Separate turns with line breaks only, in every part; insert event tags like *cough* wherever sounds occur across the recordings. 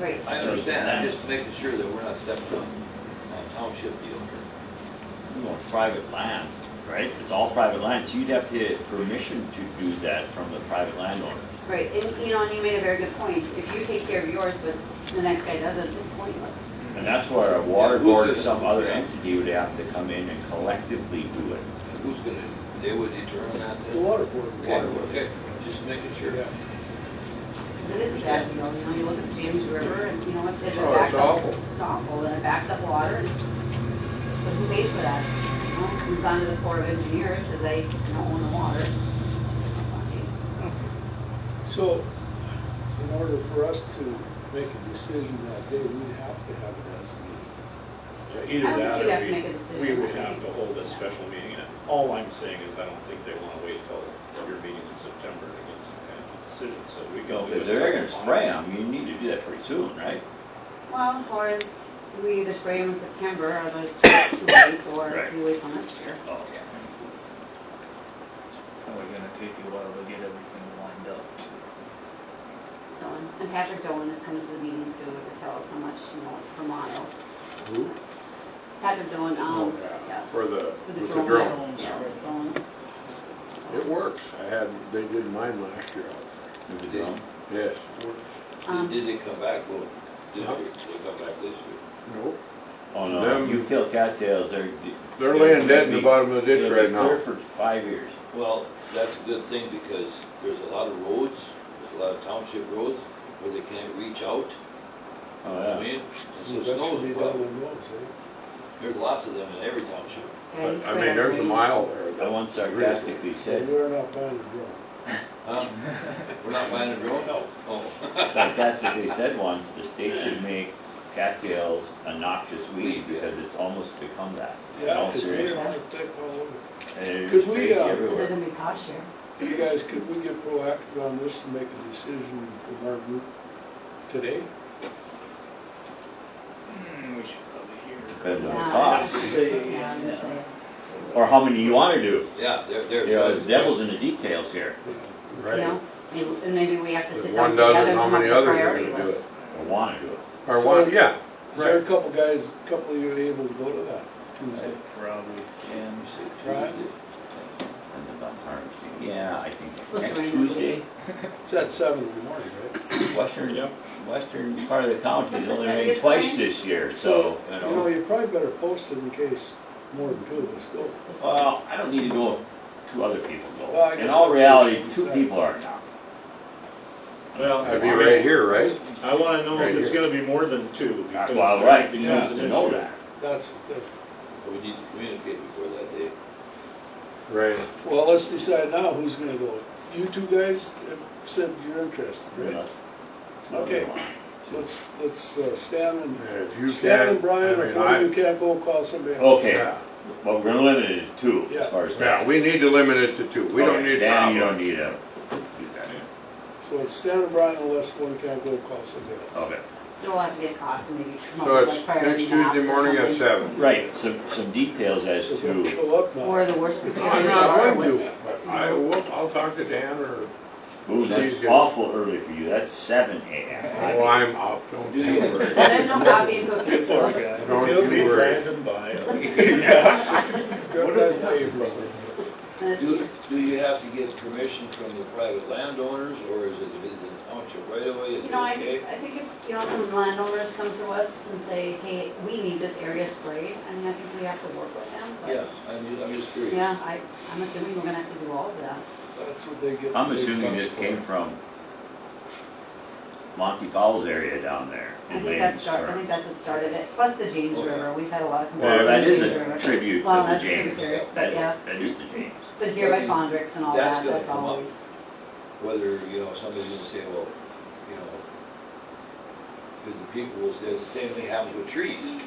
Right.
I understand, I'm just making sure that we're not stepping on, on township deal here.
you know, private land, right? It's all private land, so you'd have to get permission to do that from the private landowner.
Right, and, you know, and you made a very good point. If you take care of yours, but the next guy doesn't, it's pointless.
Mm-hmm.
And that's where a water
Yeah, who's
board or
gonna-
some other
yeah.
entity would have to come in and collectively do it.
Who's gonna, they would determine that then?
The water board.
Okay, okay, just making sure.
Yeah.
'Cause it is a bad deal, you know, you look at the James River and, you know, if it
Oh,
backs
it's
up.
awful.
It's awful, and it backs up water, and, but who pays for that? You know, we've gone to the Corps of Engineers, because they don't own the water.
So, in order for us to make a decision that day, we have to have it as a meeting.
Either
I don't
that
think you have
or
to make a decision.
we, we would have to hold a special meeting. And All I'm saying is I don't think they want to wait till your meeting in September to get some kind of decision, so we can. do
Because
it
they're gonna
till-
spray them, you need to do that pretty soon, right?
Well, or is, we either spray them in September, or those too late, or
Right.
we wait till next year.
Oh,
Probably gonna take you a while to get everything lined up.
So, and- and Patrick Dolan is coming to the meeting too, to tell us how much, you know, for Mono.
Who?
Patrick Dolan,
Oh,
um,
yeah,
yeah,
for the,
with
with
the
the
drones.
drone.
Yeah, with the drones.
It works. I had, they did mine last year.
Did
they-
Yes.
Um,
Did they come back, well, this year, they come back this year?
Nope.
Oh, no,
Them-
you kill cattails, they're. de-
They're laying dead in
they'll
the
be-
bottom of the ditch
they'll be
right now.
clear for five years.
Well, that's a good thing, because there's a lot of roads, there's a lot of township roads, where they can't reach out.
Oh,
I
yeah.
mean,
So
so
that should be
snow's,
done
well,
in those,
there's lots of them in every township.
yeah, you
But, I
spray
mean, there's a
everything.
mile there.
I
that-
once sarcastically
eh?
said,
We're not buying the drone. *laughs*
Huh? We're not buying a drone? No. Oh.
sarcastically said once, the state should make cattails a noxious weed because it's almost become that. In all
Because they
seriousness.
are thick all over.
And
Could
there's
we,
crazy
uh,
Is it
everywhere.
gonna be cost share?
You guys, could we get proactive on this and make a decision from our group today?
Hmm, we should probably hear.
Depends on
Yeah.
the
I'd
cost.
say,
Yeah, I'm gonna
yeah.
say.
Or how many you wanna do.
Yeah, there,
You
there's.
know, the devil's in the details here.
You
Right.
know, and- and maybe we have to
If
sit down
one
together
does it,
and
how
come up
many
with
others are
priority
gonna do
lists.
Or wanna do it.
Or
So-
one, yeah,
Is there a
right.
couple guys, a couple of you able to go to that Tuesday?
I Probably can.
Right.
And then I'm harvesting. Yeah, I think
Supposed to
next
rain this
Tuesday,
It's at seven in the morning, right?
western,
Yep.
western part of the county has only
Yeah,
rained
it's
twice
fine.
this year, so, you
You know,
know.
you probably better post it in case more than two of us go.
It's- it's-
Well, I don't need to know if two other people
Well, I
go. In
guess
all
that's
reality,
what she
two
said.
people are enough.
Well,
That'd be right here, right?
I want to know
Right
if it's
here.
going to be more than two. because
Well,
that
right, you
becomes
have
an
to know
issue.
that.
That's, that-
We need to communicate before that day.
Right.
well, let's decide now who's gonna go. You two guys have said you're interested, right?
unless-
Okay. Let's, let's, uh, Stan
And
and,
If you
Stan
can,
and Brian, or
I
one of
mean,
you can't go, call somebody else.
Okay,
*laughs* Yeah.
well, we're gonna limit it to two as
Yeah.
far
I,
as.
yeah, we need to limit it to two. We don't
Okay,
need
Dan, you don't
problems.
need a, do that.
So it's Stan and Brian unless one can't go, call somebody else.
Okay.
So we'll have to get costs and maybe come up
So
with
it's
like priority
next Tuesday
maps or
morning at
something.
seven.
Right, some, some details as
So don't
to
show up
Or
now.
the worst. we could do
I'm
is
not
borrow
going
what's-
to, but I will, I'll talk to Dan or,
Ooh, that's
Please go.
awful early for you. That's seven
oh,
AM.
I'm out, don't you worry.
Well, there's no coffee and cookies, so.
Poor guy.
Don't
He'll
you
be
worry.
driving by.
Grab that paper.
Let's see.
Do, do you have to get permission from the private landowners, or is it, is it township right away? Is
You
it
know, I,
okay?
I think if, you know, some landowners come to us and say, hey, we need this area sprayed, I mean, I think we have to work with them, but.
Yeah, I'm, ju- I'm just curious.
Yeah, I, I'm assuming we're gonna have to do all of that.
That's what they get.
I'm
big
assuming
bucks
this
for.
came from Monty Falls area down there.
I
in
think that
Lane's
start, I
or-
think that's what started it, plus the James
Oh, yeah.
River, we've had a lot of complaints.
Well, that
about the
is
James
a
River.
tribute
Well,
to the
that's a
James.
tributary,
That-
but yeah,
That is the James.
but here by Fondricks and all
That's
that,
gonna
that's
come up.
always,
Whether, you know, somebody's gonna say, well, you know, because the people will say, the same thing happens with trees.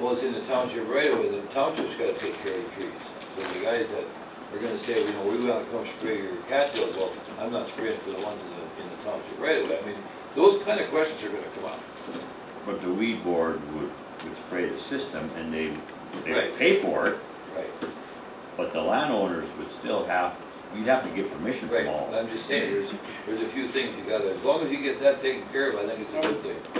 Well, it's in the township right away, the township's gotta take care of the trees. So the guys that are gonna say, you know, we wanna come spray your cattails, well, I'm not spraying for the ones in the, in the township right away. I mean, those kind of questions are gonna come up.
But the weed board would, would spray the system and they, they would
Right.
pay for it,
Right.
but the landowners would still have you'd have to get permission
Right,
from all.
I'm just saying, there's, there's a few things you gotta, as long as you get that taken care of, I think it's a good thing.